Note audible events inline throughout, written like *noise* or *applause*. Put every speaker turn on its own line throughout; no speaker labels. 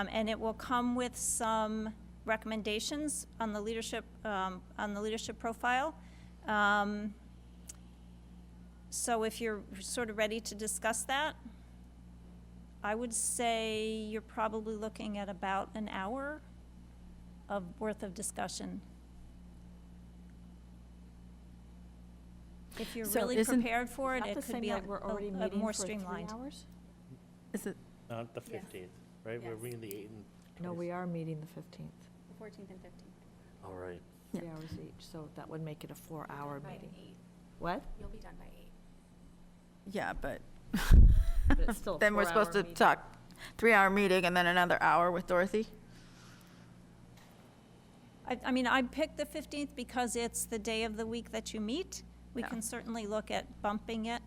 Um, And it will come with some recommendations on the leadership, um, on the leadership profile. Um, So if you're sort of ready to discuss that, I would say you're probably looking at about an hour of worth of discussion. If you're
So
really
isn't-
prepared for it,
Not
it
the
could
same
be a
night we're already
a- a
meeting
more
for three
streamlined.
hours?
Is it,
Not the
Yes.
15th, right? We're
Yes.
reading the 8th and
No,
20th.
we are meeting the 15th,
The fourteenth and fifteenth.
All right.
Yeah.
three hours each, so that would make it a four-hour
By
meeting.
eight,
What?
you'll be done by eight.
yeah, but.
it's
*laughs*
still a
Then we're supposed to
four-hour meeting.
talk, three-hour meeting and then another hour with Dorothy?
I, I mean, I picked the 15th because it's the day of the week that you meet. We
Yeah.
can certainly look at bumping it.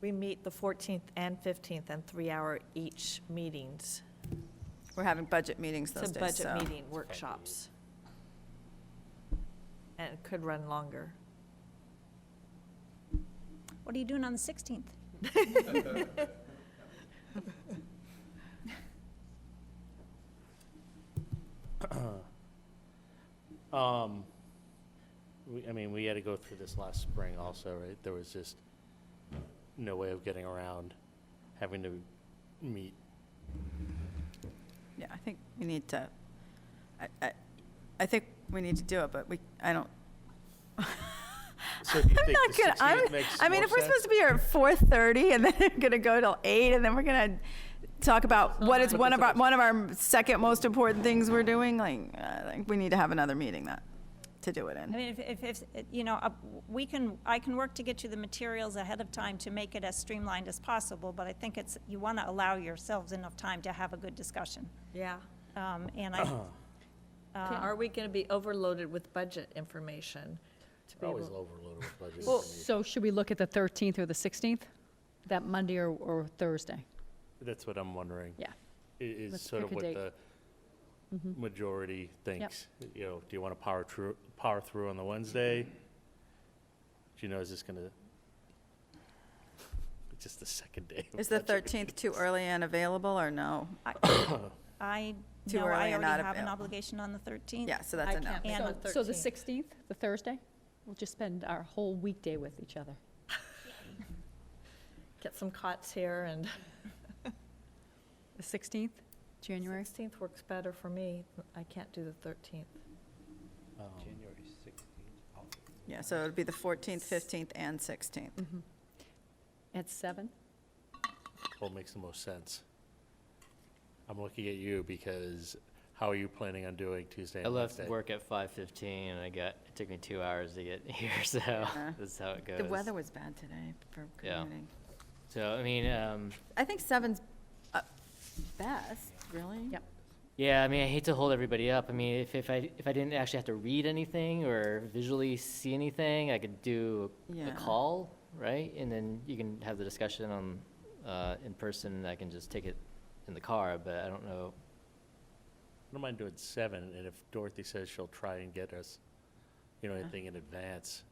We meet the 14th and 15th and three-hour each meetings.
We're having budget meetings
It's
those
a
days, so.
budget meeting, workshops. And it could run longer.
What are you doing on the 16th?
*clears throat* Um, we, I mean, we had to go through this last spring also, right? There was just no way of getting around having to meet.
Yeah, I think we need to, I, I, I think we need to do it, but we, I don't.
So do you
*laughs* I'm
think
not
the
gonna,
16th
I'm,
makes
I mean,
more
if we're
sense?
supposed to be here at four-thirty and then *laughs* we're gonna go till eight and then we're gonna talk about what is one of our, one of our second most important things we're doing, like, I think we need to have another meeting that, to do it
I
in.
mean, if, if, if, uh, you know, uh, we can, I can work to get you the materials ahead of time to make it as streamlined as possible, but I think it's, you want to allow yourselves enough time to have a good discussion.
Yeah.
Um, And
*coughs*
I,
Uh, Are we going to be overloaded with budget information? to be
We're Always
able-
overloaded with budget.
So should we look at the 13th or the 16th? That Monday or, or Thursday?
That's what I'm wondering.
Yeah.
i- Is
Let's Mm-hmm.
sort of
pick a
what
date.
the majority thinks. You know, do you want to power through, power through on the Wednesday? Do you know, is this going to, it's just the second day. of
Is the
budget
thirteenth too early and available or no?
I
Too
know
early
I
and
already
not
have an
available.
obligation on the 13th.
Yeah, so that's a no.
And on
So the 16th, the Thursday? We'll just spend our whole weekday with each other.
Get some cots here and.
The 16th, January?
16th works better for me. I can't do the 13th.
Um,
January 16th.
Yeah, so it'd be the fourteenth, fifteenth, and sixteenth.
Mm-hmm. At 7?
What makes the most sense? I'm looking at you because how are you planning on doing Tuesday
I
and
left
Wednesday?
work at 5:15 and I got, it took me two hours to get *laughs* here, so
Yeah.
that's how it goes.
The weather was bad today for
Yeah.
commuting.
So, I mean, um,
I think seven's uh, best, really.
Yep.
yeah, I mean, I hate to hold everybody up. I mean, if, if I, if I didn't actually have to read anything or visually see anything, I could do a
Yeah.
call, right? And then you can have the discussion on, uh, in person, and I can just take it in the car, but I don't know.
I don't mind doing seven, and if Dorothy says she'll try and get us, you know, anything in advance,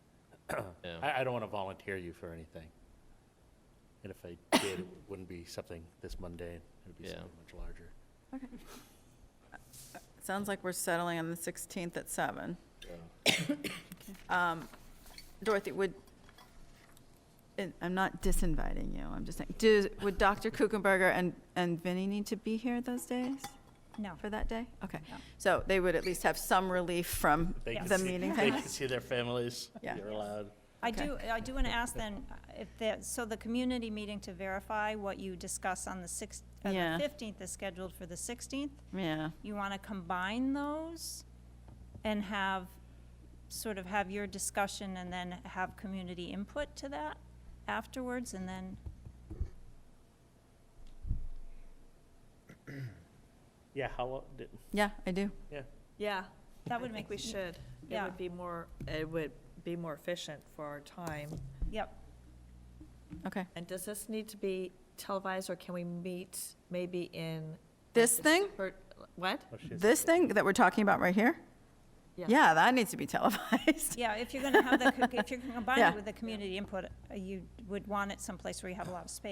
*clears throat*
Yeah.
I, I don't want to volunteer you for anything. And if I did, it wouldn't be something this mundane, it'd be
Yeah.
something much larger.
Sounds like we're settling on the 16th at 7. Um, Dorothy, would, and I'm not disinviting you, I'm just saying, do, would Dr. Kuchenberger and, and Vinnie need to be here those days,
No.
for that day? Okay.
No.
So they would at least have some relief from
They can
the
see-
meeting
They
thing?
can see their families,
Yeah.
you're allowed.
I
Okay.
do, I do want to ask then, uh, if that, so the community meeting to verify what you discuss on the sixth, uh,
Yeah.
the fifteenth is scheduled for the sixteenth.
Yeah.
You want to combine those and have, sort of have your discussion and then have community input to that afterwards and then,
Yeah, how, lo- did-
Yeah, I do.
yeah.
Yeah.
that
I
would
think
make,
we should. It
Yeah.
would be more, it would be more efficient for our time.
yep.
Okay.
And does this need to be televised, or can we meet maybe in?
This
like, a
thing?
separate- What?
Oh, she's-
This thing that we're talking about right here?
Yeah.
Yeah, that needs to be
*laughs*
televised.
Yeah,
*laughs*
if you're going to have the, co- if you're going to combine
Yeah.
it with the community input, uh, you would want it someplace where you have a lot of space.